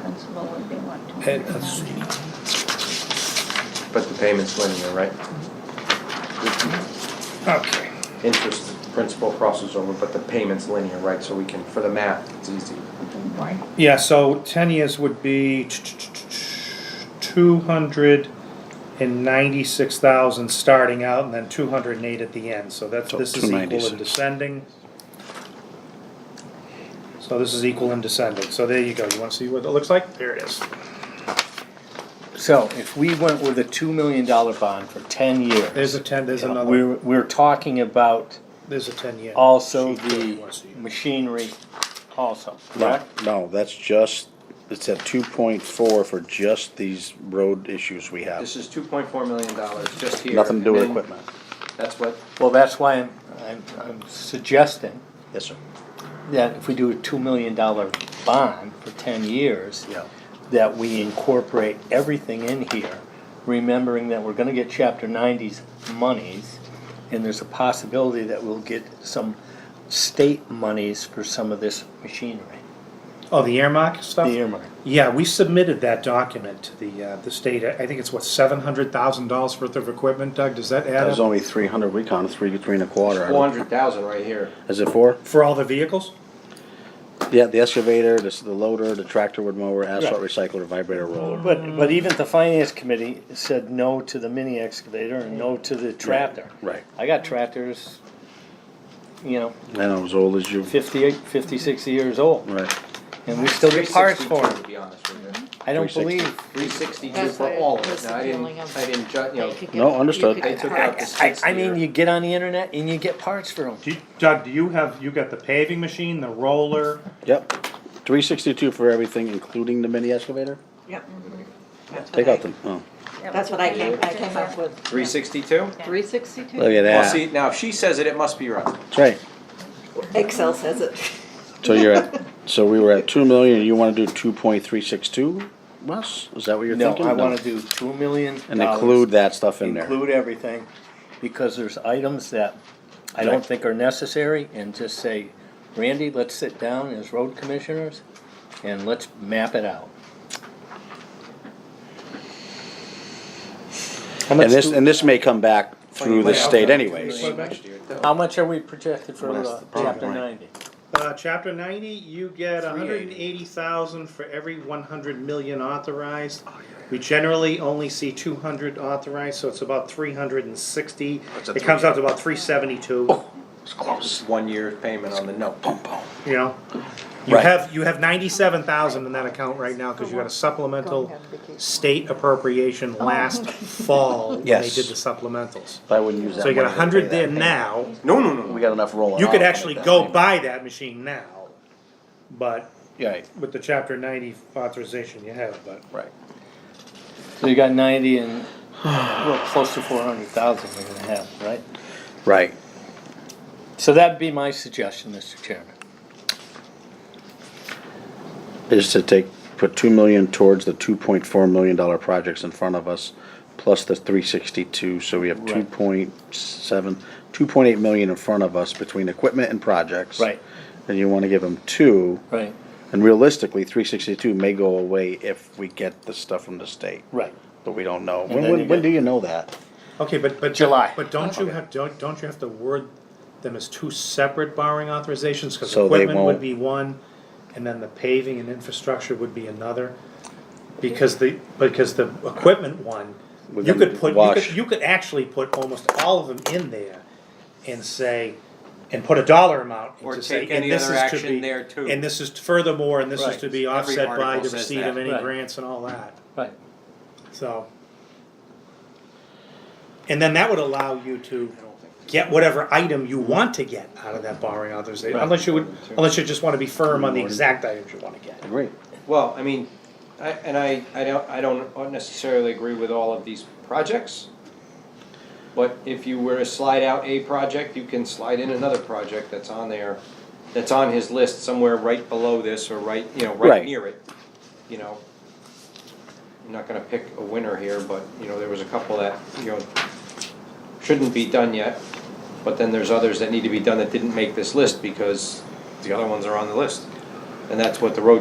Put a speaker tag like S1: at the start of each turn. S1: flexible if they want to.
S2: Hey, that's-
S3: But the payment's linear, right? The
S2: Okay,
S3: Interest, principal crosses over, but the payment's linear, right? So we can, for the math, it's easy.
S1: Right.
S2: yeah, so ten years would be two hundred and ninety-six thousand starting out and then two hundred and eight at the end, so that's,
S4: So
S2: this is equal in
S4: 296.
S2: descending. So this is equal in descending, so there you go, you wanna see what it looks like? There it is.
S4: So if we went with a two million dollar bond for ten years,
S2: There's a ten, there's another,
S4: we're, we're talking about
S2: there's a ten-year.
S4: also
S2: Sheet there, you wanna
S4: the
S2: see.
S4: machinery also,
S5: No,
S4: correct?
S5: no, that's just, it's at two point four for just these road issues we have.
S3: This is two point four million dollars just here.
S5: Nothing to do with
S3: and then
S5: equipment.
S3: That's what,
S4: Well, that's why I'm, I'm, I'm suggesting
S5: Yes, sir.
S4: that if we do a two million dollar bond for ten years,
S5: Yeah.
S4: that we incorporate everything in here, remembering that we're gonna get chapter ninety's monies, and there's a possibility that we'll get some state monies for some of this machinery,
S2: Oh, the earmark
S4: the
S2: stuff?
S4: earmark.
S2: Yeah, we submitted that document to the, uh, the state, I I think it's what, seven hundred thousand dollars worth of equipment, Doug, does that
S5: That
S2: add
S5: was
S2: up?
S5: only three hundred, we counted three, three and a quarter.
S3: four hundred thousand right here.
S5: Is it four?
S2: For all the vehicles?
S5: Yeah, the excavator, this, the loader, the tractor wood mower, asphalt
S4: Right.
S5: recycler, vibrator roller.
S4: But, but even the finance committee said no to the mini excavator and no to the tractor.
S5: Right,
S4: I got tractors, you know,
S5: and I'm as old as you,
S4: 58, 50, 60 years old,
S5: right.
S4: and we still get parts
S3: 362,
S4: for them.
S3: To be honest with you.
S4: I don't
S5: 360.
S4: believe,
S3: Three sixty-two
S6: That's
S3: for
S6: what it
S3: all of it.
S6: was
S3: Now, I didn't,
S6: feeling of-
S3: I didn't ju, you know,
S5: No, understood.
S3: I took out the
S4: I,
S3: sixth
S4: I mean,
S3: year.
S4: you get on the internet and you get parts for them.
S2: Do you- Doug, do you have, you got the paving machine, the roller?
S5: Yep, three sixty-two for everything, including the mini excavator?
S6: Yep.
S5: Take out the, oh,
S6: That's what I came, I came up with,
S3: Three sixty-two?
S6: three sixty-two?
S5: look at
S3: Well, see,
S5: that,
S3: now if she says it, it must be right.
S5: that's right.
S6: Excel says it.
S5: So you're at, so we were at two million, you wanna do two point three six two, Russ? Is that what you're
S4: No,
S5: thinking?
S4: I wanna do two million
S5: And
S4: dollars,
S5: include that stuff in there.
S4: Include everything, because there's items that I don't
S5: Right.
S4: think are necessary, and just say, Randy, let's sit down as road commissioners, and let's map it out. How much,
S5: And this,
S4: do-
S5: and this may come back through the state anyways.
S3: Next year, though.
S4: how much are we projected for
S5: Well, that's
S4: uh,
S5: the problem,
S4: chapter
S5: right.
S4: ninety?
S2: Uh, chapter ninety, you get a hundred and
S3: 380.
S2: eighty thousand for every one hundred million authorized. We generally only see two hundred authorized, so it's about three hundred and sixty.
S3: That's a
S2: It comes out to about three seventy-two,
S3: Just One year payment on the note.
S2: you know? You
S5: Right.
S2: have, you have ninety-seven thousand in that account right now, cause you got a supplemental state appropriation last fall when they
S5: Yes.
S2: did the supplementals.
S5: I wouldn't use that.
S2: So you got a
S5: money to pay
S2: hundred
S5: that
S2: there
S5: payment.
S2: now.
S3: No, no, no, no.
S5: We got enough rolling.
S2: You could
S5: off
S2: actually
S5: like that
S2: go
S5: anyway.
S2: buy that machine now, but
S5: Right,
S2: with the chapter ninety authorization you have, but.
S5: right.
S4: So you got ninety and, well, close to four hundred thousand we're gonna have, right?
S5: Right.
S4: So that'd be my suggestion, Mr. Chairman.
S5: Is to take, put two million towards the two point four million dollar projects in front of us, plus the three sixty-two, so we have
S4: Right.
S5: two point seven, two point eight million in front of us between equipment and projects.
S4: Right.
S5: And you wanna give them two,
S4: Right,
S5: and realistically, three sixty-two may go away if we get the stuff from the state,
S4: right.
S5: but we don't know.
S4: then
S5: When,
S4: you
S5: when, when do
S4: get-
S5: you know that?
S2: Okay, but, but.
S4: July.
S2: But don't you have, don't, don't you have to word them as two separate borrowing authorizations, cause
S5: So they
S2: equipment would
S5: won't-
S2: be one, and then the paving and infrastructure would be another? Because the, because the equipment one,
S5: We're
S2: you
S5: gonna
S2: could put, you
S5: wash.
S2: could, you could actually put almost all of them in there and say, and put a dollar amount. and
S3: Or
S2: to say,
S3: take
S2: and
S3: any
S2: this
S3: other
S2: is to
S3: action
S2: be-
S3: there too.
S2: And this is furthermore, and this is
S4: Right.
S2: to be
S3: Every
S2: offset by
S3: article
S2: the
S3: says
S2: receipt
S3: that.
S2: of any
S4: Right.
S2: grants and all that.
S4: Right.
S2: So. And then that would allow you to get whatever item you want to get out of that borrowing authorization,
S4: Right.
S2: unless you would, unless you just wanna be firm on the exact items you wanna get.
S5: Agree.
S3: Well, I mean, I, and I, I don't, I don't necessarily agree with all of these projects. But if you were to slide out a project, you can slide in another project that's on there, that's on his list somewhere right below this or right, you know, right
S5: Right.
S3: near it, you know. I'm not gonna pick a winner here, but, you know, there was a couple that, you know, shouldn't be done yet. But then there's others that need to be done that didn't make this list because the other ones are on the list. And that's what the road